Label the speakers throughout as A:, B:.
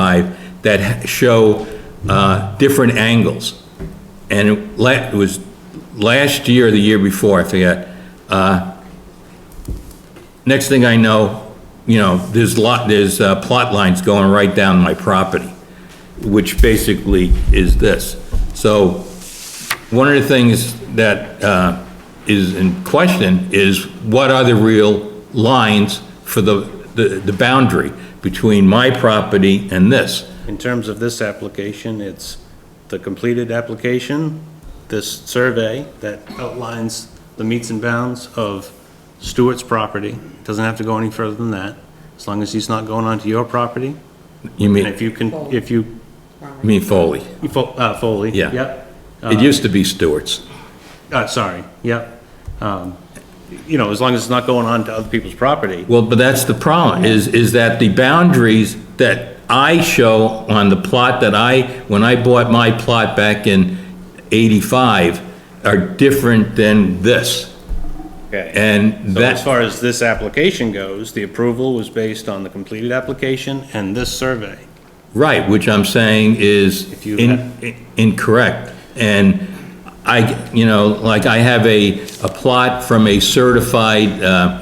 A: 85 that show uh, different angles. And it la- it was last year or the year before, I forget. uh, Next thing I know, you know, there's lot, there's uh, plot lines going right down my property, which basically is this. So one of the things that uh, is in question is what are the real lines for the, the the boundary between my property and this?
B: In terms of this application, it's the completed application, this survey that outlines the meets and bounds of Stewart's property. Doesn't have to go any further than that, as long as he's not going onto your property.
A: You
B: And
A: mean,
B: if you can, if you,
A: you mean Foley?
B: you fo- uh, Foley.
A: Yeah.
B: Yep.
A: It used to be Stewart's.
B: Uh, sorry, yep. Um, You know, as long as it's not going on to other people's property.
A: Well, but that's the problem, is, is that the boundaries that I show on the plot that I, when I bought my plot back in 85, are different than this.
B: Okay.
A: And
B: So as
A: that,
B: far as this application goes, the approval was based on the completed application and this survey.
A: right, which I'm saying is
B: If you
A: in-
B: have-
A: in- incorrect. And I, you know, like I have a, a plot from a certified, uh,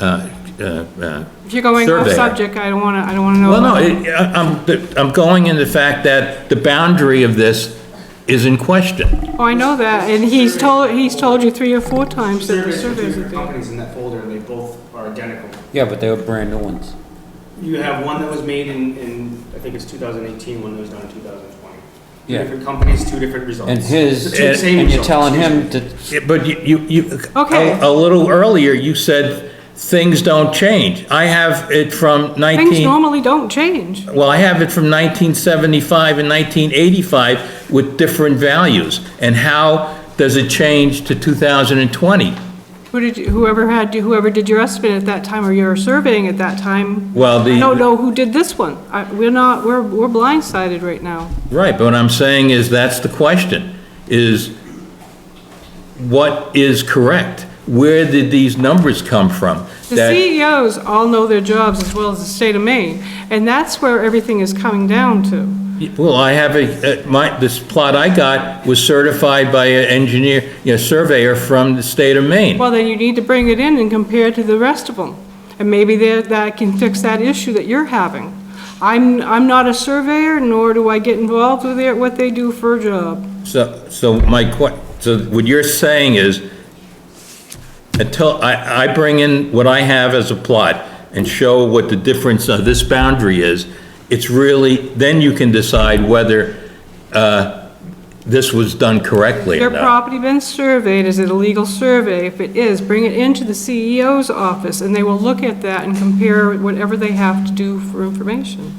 A: uh, uh, uh,
C: If you're going off
A: Surveyor.
C: subject, I don't want to, I don't want to know.
A: Well, no,
C: about it.
A: it- I- I'm, I'm going in the fact that the boundary of this is in question.
C: Oh, I know that, and he's told, he's told you three or four times that the
D: Surveys from two
C: surveys are
D: different
C: there.
D: companies in that folder, and they both are identical.
E: Yeah, but they were brand new ones.
D: You have one that was made in, in, I think it's 2018, one that was done in 2020. Two
E: Yeah.
D: different companies, two different results.
E: And his,
D: The two same
E: and you're
D: results.
E: telling him that,
A: Yeah, But you- you, you,
C: Okay.
A: a a little earlier, you said things don't change. I have it from
C: Things
A: 19,
C: normally don't change.
A: well, I have it from 1975 and 1985 with different values. And how does it change to 2020?
C: Who did, you- whoever had, whoever did your estimate at that time, or your surveying at that time,
A: Well, the.
C: I don't know who did this one. I, we're not, we're, we're blindsided right now.
A: Right, but what I'm saying is, that's the question, is what is correct? Where did these numbers come from?
C: The
A: That-
C: CEOs all know their jobs as well as the state of Maine, and that's where everything is coming down to.
A: Well, I have a, uh, my, this plot I got was certified by an engineer, you know, surveyor from the state of Maine.
C: Well, then you need to bring it in and compare it to the rest of them. And maybe there- that can fix that issue that you're having. I'm, I'm not a surveyor, nor do I get involved with their, what they do for a job.
A: So, so my que, so what you're saying is, until, I, I bring in what I have as a plot and show what the difference of this boundary is, it's really, then you can decide whether, uh, this was done correctly or
C: Your
A: not.
C: property been surveyed, is it a legal survey? If it is, bring it into the CEO's office, and they will look at that and compare whatever they have to do for information.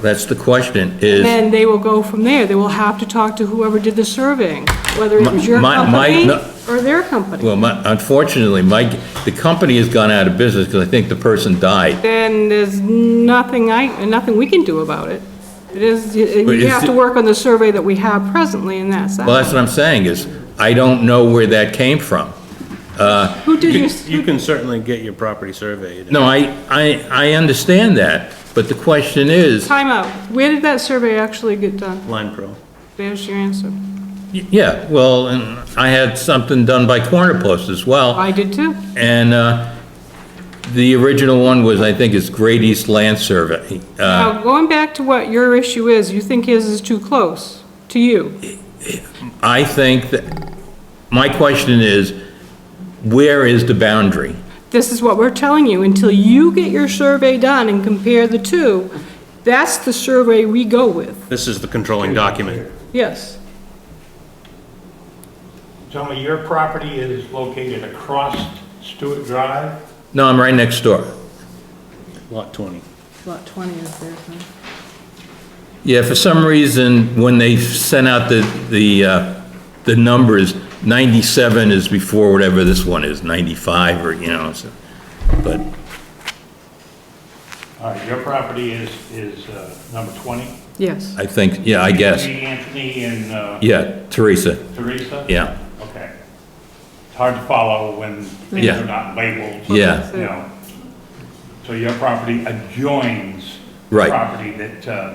A: That's the question, is,
C: Then they will go from there, they will have to talk to whoever did the surveying, whether it was your
A: My- my- my-
C: company
A: no.
C: or their company.
A: well, my, unfortunately, my, the company has gone out of business because I think the person died.
C: then there's nothing I, nothing we can do about it. It is,
A: But
C: you
A: is
C: have to
A: it-
C: work on the survey that we have presently, and that's
A: Well, that's
C: that.
A: what I'm saying, is, I don't know where that came from.
C: Who did you,
B: You can certainly get your property surveyed.
A: No, I, I, I understand that, but the question is,
C: time out. where did that survey actually get done?
B: Line Pro.
C: There's your answer.
A: Yeah, well, and I had something done by Corner Post as well,
C: I did too.
A: and uh, the original one was, I think, it's Great East Land Survey. Uh,
C: Now, going back to what your issue is, you think his is too close to you.
A: I think that, my question is, where is the boundary?
C: This is what we're telling you, until you get your survey done and compare the two, that's the survey we go with,
B: This is the controlling document.
C: yes.
F: Tommy, your property is located across Stewart Drive?
A: No, I'm right next door.
B: Lot 20.
C: Lot 20 is there,
A: Yeah, for some reason, when they sent out the, the, uh, the numbers, 97 is before whatever this one is, 95 or, you know, so- but,
F: All right, Uh, your property is, is uh, number 20?
C: Yes.
A: I think, yeah, I guess,
F: Anthony and uh,
A: yeah, Teresa,
F: Teresa?
A: yeah.
F: Okay. It's hard to follow when things
A: Yeah.
F: are not labeled.
A: Yeah.
F: You know. So your property adjoins
A: Right.
F: property that, uh,